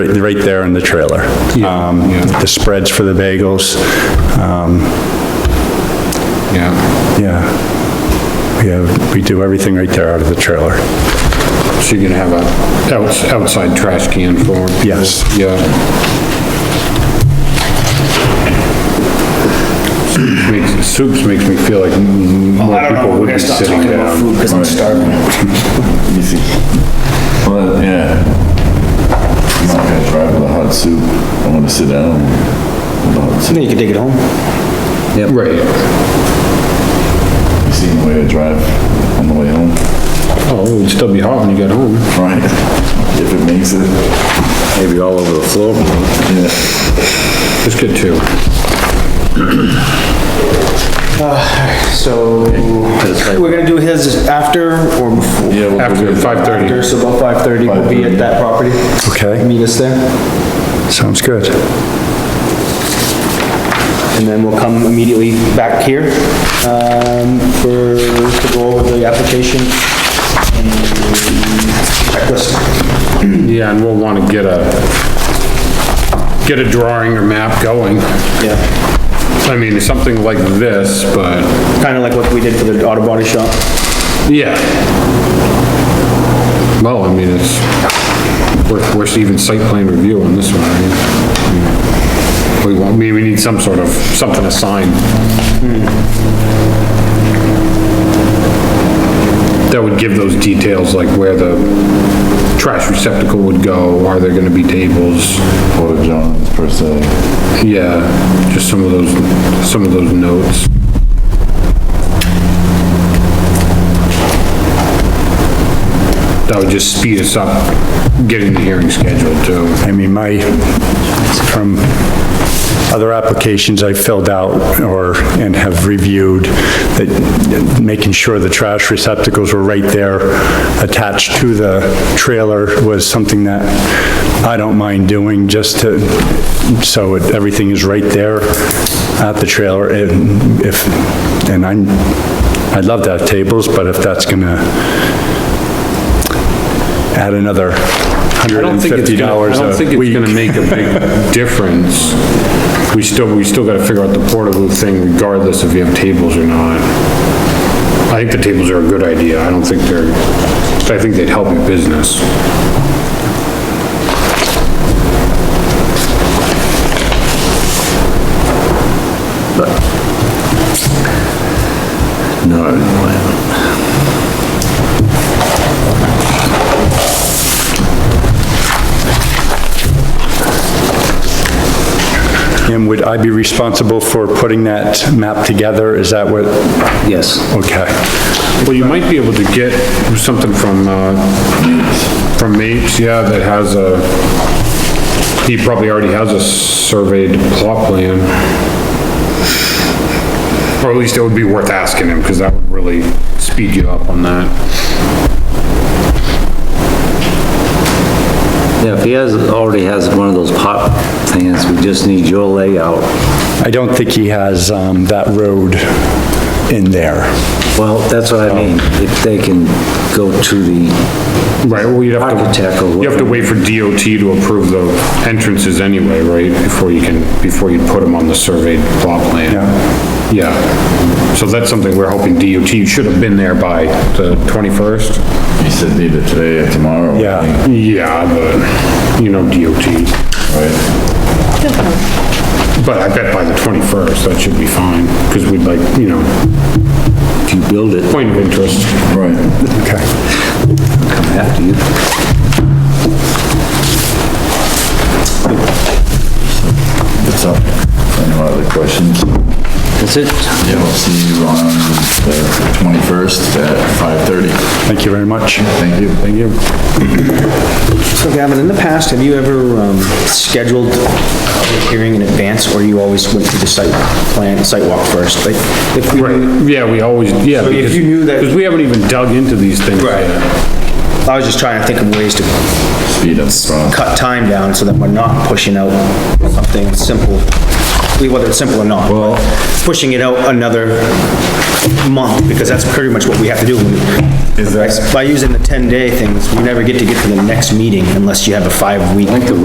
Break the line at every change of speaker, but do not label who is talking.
Right right there in the trailer. Um, The spreads for the bagels, um,
Yeah.
yeah. We have, we do everything right there out of the trailer.
So you're gonna have a outs- outside trash can for?
Yes.
Yeah. Makes- Soups makes me feel like m- more
Oh, I don't know,
people
we're
would
gonna
be
stop
sitting
talking about
down.
food because I'm starving.
Easy. Well, yeah. I'm not gonna drive with a hot soup. I'm gonna sit down with a hot soup.
You can take it home.
Right.
You seen the way I drive on the way home?
Oh, it'd still be hot when you get home.
Right. If it makes it. Maybe all over the floor. Yeah.
Just get two.
So, we're gonna do his after or before?
Yeah, we'll
After
do it.
five thirty.
After, so about five thirty, we'll be at that property.
Okay.
Meet us there,
Sounds good.
and then we'll come immediately back here, um, for, to go over the application and checklist.
Yeah, and we'll wanna get a, get a drawing or map going.
Yeah,
I mean, something like this, but,
kinda like what we did for the auto body shop.
yeah. Well, I mean, it's, we're, we're even site plan review on this one, right? We want, we, we need some sort of, something assigned. That would give those details, like where the trash receptacle would go, are there gonna be tables?
Porta Johns per se.
Yeah, just some of those, some of those notes. That would just speed us up getting the hearing scheduled too.
I mean, my, from other applications I filled out or, and have reviewed, that making sure the trash receptacles were right there attached to the trailer was something that I don't mind doing just to, so it- everything is right there at the trailer and if, and I'm, I'd love to have tables, but if that's gonna add another
I
hundred
don't
and
think it's
fifty
gonna, I
dollars
don't
a
think it's
week.
gonna make a big difference. We still, we still gotta figure out the porta booth thing regardless if you have tables or not. I think the tables are a good idea. I don't think they're, I think they'd help your business.
No, I didn't plan.
And would I be responsible for putting that map together? Is that what,
Yes.
okay.
Well, you might be able to get something from, uh, from Mapes, yeah, that has a, he probably already has a surveyed plot plan. Or at least it would be worth asking him, because that would really speed you up on that.
Yeah, if he has, already has one of those pop things, we just need your layout.
I don't think he has um, that road in there.
Well, that's what I mean, if they can go to the,
Right, well, you'd have to.
Architect or
You have to wait for DOT to approve the entrances anyway, right, before you can, before you put them on the surveyed plot plan. Yeah. Yeah, so that's something we're hoping DOT, you should have been there by the 21st.
You said either today or tomorrow. I
Yeah.
think,
Yeah, but, you know, DOT,
Right?
but I bet by the 21st, that should be fine, because we'd like, you know,
if you build it,
point of interest.
Right.
Okay.
come after you.
It's up. Any other questions?
That's it.
Yeah, we'll see you on the twenty-first at five-thirty.
Thank you very much.
Thank you. Thank you.
So Gavin, in the past, have you ever, um, scheduled a public hearing in advance, or you always went through the site plan, site walk first? Like, if we,
Right, yeah, we always, yeah,
So if
because,
you knew that-
because we haven't even dug into these things
Right.
yet.
I was just trying to think of ways to
Speed up, strong.
cut time down so that we're not pushing out something simple, whether it's simple or not. Well. Pushing it out another month, because that's pretty much what we have to do.
Is that-
By using the 10-day things, we never get to get to the next meeting unless you have a five-week